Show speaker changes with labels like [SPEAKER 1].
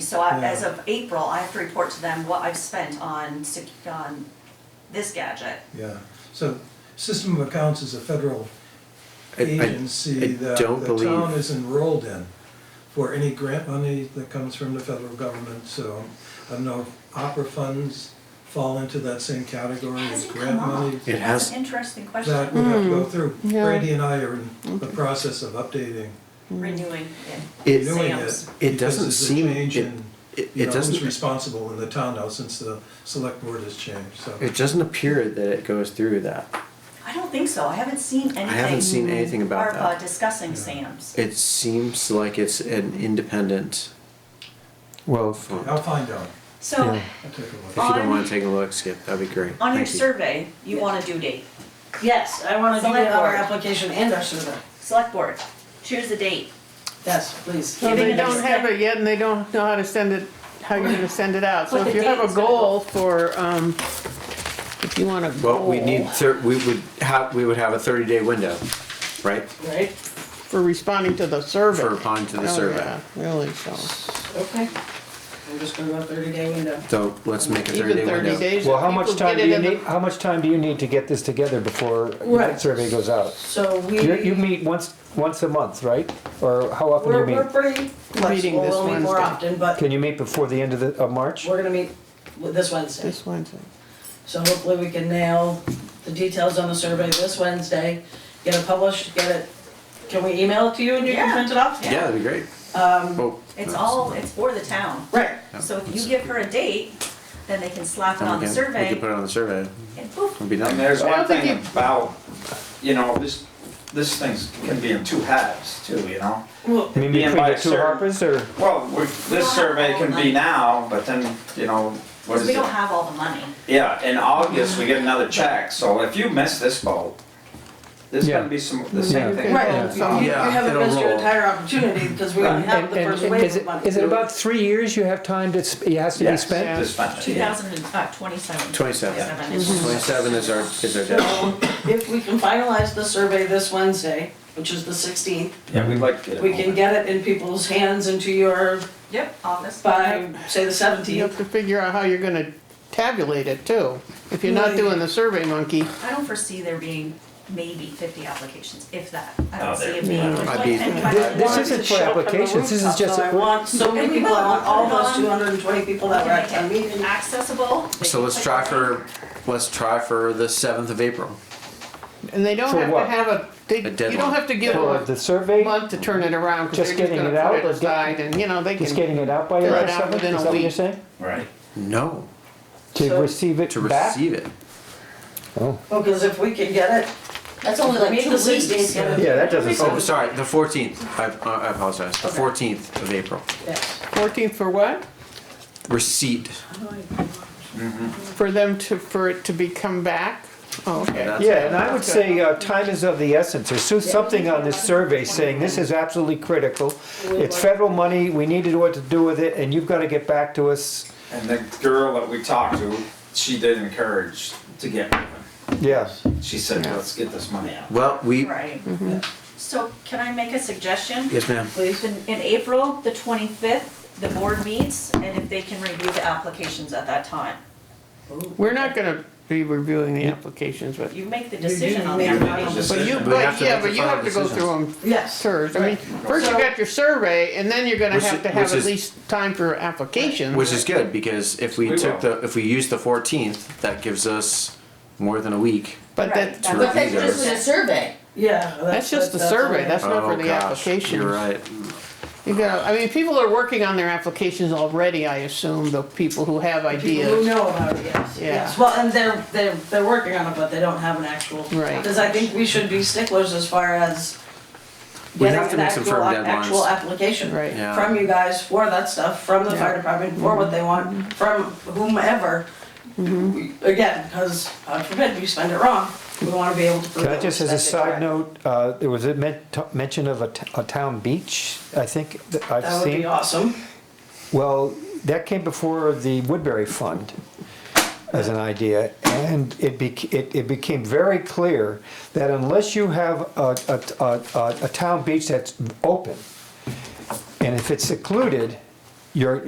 [SPEAKER 1] so I,
[SPEAKER 2] Yeah.
[SPEAKER 1] as of April, I have to report to them what I've spent on, sec- on this gadget.
[SPEAKER 2] Yeah, so System of Accounts is a federal
[SPEAKER 3] I- I- I
[SPEAKER 2] agency that
[SPEAKER 3] don't
[SPEAKER 2] the town
[SPEAKER 3] believe-
[SPEAKER 2] is enrolled in for any grant money that comes from the federal government, so I don't know, if opera funds fall into that same category as
[SPEAKER 1] Hasn't
[SPEAKER 2] grant
[SPEAKER 1] come up.
[SPEAKER 2] money.
[SPEAKER 3] It
[SPEAKER 1] That's
[SPEAKER 3] has,
[SPEAKER 1] an interesting
[SPEAKER 2] That
[SPEAKER 1] question,
[SPEAKER 2] we have to go through.
[SPEAKER 4] yeah.
[SPEAKER 2] Brady and I are in the process of updating,
[SPEAKER 1] renewing it.
[SPEAKER 3] It-
[SPEAKER 2] doing
[SPEAKER 1] Sam's.
[SPEAKER 2] it.
[SPEAKER 3] It
[SPEAKER 2] because
[SPEAKER 3] doesn't
[SPEAKER 2] it's a
[SPEAKER 3] seem-
[SPEAKER 2] Change
[SPEAKER 3] it-
[SPEAKER 2] in,
[SPEAKER 3] it-
[SPEAKER 2] you
[SPEAKER 3] it
[SPEAKER 2] know, who's
[SPEAKER 3] doesn't-
[SPEAKER 2] responsible in the town now since the select board has changed, so.
[SPEAKER 3] it doesn't appear that it goes through that.
[SPEAKER 1] I don't think so, I haven't seen anything.
[SPEAKER 3] I haven't seen anything about
[SPEAKER 1] ARPA
[SPEAKER 3] that.
[SPEAKER 1] discussing Sam's.
[SPEAKER 3] It seems like it's an independent
[SPEAKER 5] Well,
[SPEAKER 2] I'll
[SPEAKER 3] fund.
[SPEAKER 2] find out,
[SPEAKER 1] So,
[SPEAKER 5] Yeah.
[SPEAKER 2] I'll take a look.
[SPEAKER 3] If you
[SPEAKER 1] On-
[SPEAKER 3] don't wanna take a look, Skip, that'd be great.
[SPEAKER 1] on your
[SPEAKER 3] Thank you.
[SPEAKER 1] survey, you want a due date,
[SPEAKER 6] Yes, I want to do
[SPEAKER 1] Select
[SPEAKER 6] our
[SPEAKER 1] board.
[SPEAKER 6] application and our survey.
[SPEAKER 1] select board, choose the date.
[SPEAKER 6] Yes, please.
[SPEAKER 4] So they
[SPEAKER 1] Giving
[SPEAKER 4] don't
[SPEAKER 1] us-
[SPEAKER 4] have it yet and they don't know how to send it, how you're gonna send it out. So
[SPEAKER 1] What
[SPEAKER 4] if
[SPEAKER 1] the
[SPEAKER 4] you have a
[SPEAKER 1] date's gonna go.
[SPEAKER 4] goal for, um, if you want a
[SPEAKER 3] Well,
[SPEAKER 4] goal
[SPEAKER 3] we need, thir- we would have, we would have a thirty day window, right?
[SPEAKER 6] Right,
[SPEAKER 4] for responding to the survey.
[SPEAKER 3] For responding to the
[SPEAKER 4] Oh,
[SPEAKER 3] survey.
[SPEAKER 4] yeah, Really, so,
[SPEAKER 6] okay. I'm just gonna go thirty day window.
[SPEAKER 3] So let's make a thirty
[SPEAKER 4] even
[SPEAKER 3] day
[SPEAKER 4] thirty
[SPEAKER 3] window.
[SPEAKER 4] days.
[SPEAKER 5] well,
[SPEAKER 4] if
[SPEAKER 5] how much
[SPEAKER 4] people
[SPEAKER 5] time
[SPEAKER 4] get it
[SPEAKER 5] do you
[SPEAKER 4] in the-
[SPEAKER 5] need, how much time do you need to get this together before the
[SPEAKER 6] Right.
[SPEAKER 5] survey goes out?
[SPEAKER 6] So we,
[SPEAKER 5] You, you meet once, once a month, right? Or how often do
[SPEAKER 6] we're,
[SPEAKER 5] you
[SPEAKER 6] we're
[SPEAKER 5] meet?
[SPEAKER 6] pretty
[SPEAKER 4] Meeting
[SPEAKER 6] flexible,
[SPEAKER 4] this
[SPEAKER 6] we'll meet more
[SPEAKER 4] Wednesday.
[SPEAKER 6] often, but
[SPEAKER 5] Can you meet before the end of the, of March?
[SPEAKER 6] we're gonna meet with this Wednesday.
[SPEAKER 4] This Wednesday.
[SPEAKER 6] So hopefully we can nail the details on the survey this Wednesday, get it published, get it, can we email it to you and you can
[SPEAKER 1] Yeah.
[SPEAKER 6] print it off?
[SPEAKER 3] Yeah, that'd be great. Um.
[SPEAKER 1] It's all, it's for the town.
[SPEAKER 6] Right,
[SPEAKER 1] So if you give her a date, then they can slap it on the
[SPEAKER 3] We can put
[SPEAKER 1] survey
[SPEAKER 3] it on the survey,
[SPEAKER 1] and poof.
[SPEAKER 3] it'll be
[SPEAKER 7] And
[SPEAKER 3] done.
[SPEAKER 7] there's
[SPEAKER 4] I
[SPEAKER 7] one
[SPEAKER 4] don't think
[SPEAKER 7] thing about, you know, this, this thing's can be in two halves too, you know?
[SPEAKER 6] well,
[SPEAKER 5] You mean
[SPEAKER 7] Being
[SPEAKER 5] between
[SPEAKER 7] by
[SPEAKER 5] the two
[SPEAKER 7] certain-
[SPEAKER 5] Harpers or?
[SPEAKER 7] Well, we- this survey can be now, but then, you know, what
[SPEAKER 1] Because
[SPEAKER 7] is
[SPEAKER 1] we
[SPEAKER 7] it?
[SPEAKER 1] don't have all the money.
[SPEAKER 7] Yeah, in August, we get another check, so if you miss this vote, there's
[SPEAKER 5] Yeah.
[SPEAKER 7] gonna be some, the same
[SPEAKER 5] Yeah.
[SPEAKER 7] thing.
[SPEAKER 6] right, you
[SPEAKER 7] Um,
[SPEAKER 6] you
[SPEAKER 3] Yeah,
[SPEAKER 6] haven't
[SPEAKER 3] it'll
[SPEAKER 6] missed your
[SPEAKER 3] roll.
[SPEAKER 6] entire opportunity because we only have
[SPEAKER 5] And-
[SPEAKER 6] the first
[SPEAKER 5] and-
[SPEAKER 6] wave
[SPEAKER 5] Is
[SPEAKER 6] of
[SPEAKER 5] it,
[SPEAKER 6] money.
[SPEAKER 5] is it about three years you have time to, sp- it has to be
[SPEAKER 7] Yes,
[SPEAKER 5] spent?
[SPEAKER 7] to spend it,
[SPEAKER 1] Two
[SPEAKER 7] yeah.
[SPEAKER 1] thousand and, uh, twenty-seven.
[SPEAKER 3] 27.
[SPEAKER 1] is-
[SPEAKER 3] Twenty-seven is our, is our deadline.
[SPEAKER 6] So if we can finalize the survey this Wednesday, which is the sixteenth,
[SPEAKER 7] Yeah, we'd like to get it.
[SPEAKER 6] we can
[SPEAKER 7] moving.
[SPEAKER 6] get it in people's hands into your,
[SPEAKER 1] Yep, office.
[SPEAKER 6] by, say, the
[SPEAKER 4] You have
[SPEAKER 6] seventeenth.
[SPEAKER 4] to figure out how you're gonna tabulate it too. If you're not
[SPEAKER 6] Right.
[SPEAKER 4] doing the survey monkey,
[SPEAKER 1] I don't foresee there being maybe fifty applications, if that. I
[SPEAKER 7] Oh,
[SPEAKER 1] don't see
[SPEAKER 7] there-
[SPEAKER 1] it being.
[SPEAKER 3] no, I'd be-
[SPEAKER 1] And-
[SPEAKER 5] This isn't for applications, this is just,
[SPEAKER 6] So I want so many people, I want all those two hundred and twenty people that were at town meeting.
[SPEAKER 1] Accessible. they
[SPEAKER 3] So
[SPEAKER 1] can
[SPEAKER 3] let's
[SPEAKER 1] click
[SPEAKER 3] try
[SPEAKER 1] on it.
[SPEAKER 3] for, let's try for the seventh of April.
[SPEAKER 4] and they don't
[SPEAKER 5] For
[SPEAKER 4] have to
[SPEAKER 5] what?
[SPEAKER 4] have a, they,
[SPEAKER 3] A
[SPEAKER 4] you
[SPEAKER 3] deadline.
[SPEAKER 4] don't have to give
[SPEAKER 5] for
[SPEAKER 4] them
[SPEAKER 5] the survey,
[SPEAKER 4] a month to turn it around, cause
[SPEAKER 5] Just
[SPEAKER 4] they're just
[SPEAKER 5] getting
[SPEAKER 4] gonna
[SPEAKER 5] it out
[SPEAKER 4] put it
[SPEAKER 5] or get-
[SPEAKER 4] aside and, you know, they can.
[SPEAKER 5] just getting it out by
[SPEAKER 4] Fill it
[SPEAKER 5] April
[SPEAKER 4] out
[SPEAKER 5] seventh,
[SPEAKER 4] within
[SPEAKER 5] is
[SPEAKER 4] a
[SPEAKER 5] that what you're
[SPEAKER 4] week.
[SPEAKER 5] saying?
[SPEAKER 7] Right.
[SPEAKER 3] No,
[SPEAKER 5] To
[SPEAKER 6] So-
[SPEAKER 5] receive it
[SPEAKER 3] to
[SPEAKER 5] back?
[SPEAKER 3] receive it.
[SPEAKER 6] Well, because if we can get it,
[SPEAKER 8] That's only like
[SPEAKER 6] meet
[SPEAKER 8] two
[SPEAKER 6] the sixteenth,
[SPEAKER 8] weeks.
[SPEAKER 6] get it,
[SPEAKER 5] Yeah, that doesn't
[SPEAKER 3] Oh, sorry, the fourteenth. I, I apologize. The
[SPEAKER 6] Okay.
[SPEAKER 3] fourteenth of April.
[SPEAKER 6] yes.
[SPEAKER 4] Fourteenth for what?
[SPEAKER 3] Receipt.
[SPEAKER 4] For them to, for it to be come back? Oh, okay.
[SPEAKER 3] That's-
[SPEAKER 5] Yeah, and I would say uh, time is of the essence, or so- something on this survey saying this is absolutely critical. It's federal money, we need to know what to do with it, and you've got to get back to us.
[SPEAKER 7] And the girl that we talked to, she did encourage to get moving.
[SPEAKER 5] Yes.
[SPEAKER 7] She said, let's get this money out.
[SPEAKER 3] Well, we,
[SPEAKER 1] Right. So can I make a suggestion?
[SPEAKER 3] yes, ma'am.
[SPEAKER 6] Please.
[SPEAKER 1] In, in April, the twenty-fifth, the board meets, and if they can review the applications at that time.
[SPEAKER 4] We're not gonna be reviewing the applications, but,
[SPEAKER 1] You make the
[SPEAKER 6] do
[SPEAKER 1] decision on
[SPEAKER 6] make
[SPEAKER 1] that.
[SPEAKER 6] the
[SPEAKER 1] right?
[SPEAKER 7] decision.
[SPEAKER 4] but you,
[SPEAKER 3] We have
[SPEAKER 4] but
[SPEAKER 3] to
[SPEAKER 4] yeah,
[SPEAKER 3] make the
[SPEAKER 4] but you
[SPEAKER 3] final
[SPEAKER 4] have to go
[SPEAKER 3] decisions.
[SPEAKER 4] through them
[SPEAKER 6] Yes.
[SPEAKER 4] first. I mean, first you
[SPEAKER 6] So-
[SPEAKER 4] got your survey, and then you're gonna
[SPEAKER 3] Which
[SPEAKER 4] have
[SPEAKER 3] is-
[SPEAKER 4] to have
[SPEAKER 3] which
[SPEAKER 4] at
[SPEAKER 3] is-
[SPEAKER 4] least time for applications.
[SPEAKER 3] Which is good because if we
[SPEAKER 7] We
[SPEAKER 3] took
[SPEAKER 7] will.
[SPEAKER 3] the, if we use the fourteenth, that gives us more than a week.
[SPEAKER 4] But
[SPEAKER 1] Right,
[SPEAKER 4] that,
[SPEAKER 1] that's-
[SPEAKER 3] But
[SPEAKER 8] But that's just for the survey.
[SPEAKER 6] Yeah.
[SPEAKER 4] that's just the survey, that's not for
[SPEAKER 3] Oh,
[SPEAKER 4] the
[SPEAKER 3] gosh,
[SPEAKER 4] application.
[SPEAKER 3] You're right.
[SPEAKER 4] You gotta, I mean, people are working on their applications already, I assume, the people who have
[SPEAKER 6] People who
[SPEAKER 4] ideas.
[SPEAKER 6] know about it, yes,
[SPEAKER 4] Yeah.
[SPEAKER 6] yes. Well, and they're, they're, they're working on it, but they don't have an actual.
[SPEAKER 4] Right.
[SPEAKER 6] Because I think we should be sticklers as far as
[SPEAKER 3] We
[SPEAKER 6] getting
[SPEAKER 3] have to
[SPEAKER 6] an
[SPEAKER 3] make some
[SPEAKER 6] actual,
[SPEAKER 3] firm
[SPEAKER 6] actual
[SPEAKER 3] deadlines.
[SPEAKER 6] application.
[SPEAKER 4] Right.
[SPEAKER 3] Yeah.
[SPEAKER 6] From you guys for that stuff, from the
[SPEAKER 4] Yeah. Mm-hmm.
[SPEAKER 6] fire department, for what they want, from whomever. We- Again, because God forbid we spend it wrong, we want to be able to prove
[SPEAKER 5] Can I
[SPEAKER 6] that we
[SPEAKER 5] just, as
[SPEAKER 6] spent
[SPEAKER 5] a
[SPEAKER 6] it
[SPEAKER 5] side
[SPEAKER 6] correct.
[SPEAKER 5] note, uh, there was a men- t- mention of a t- a town beach, I think, that I've
[SPEAKER 6] That would
[SPEAKER 5] seen.
[SPEAKER 6] be awesome.
[SPEAKER 5] Well, that came before the Woodbury Fund as an idea, and it bec it, it became very clear that unless you have a, a, a, a, a town beach that's open, and if it's secluded, you're,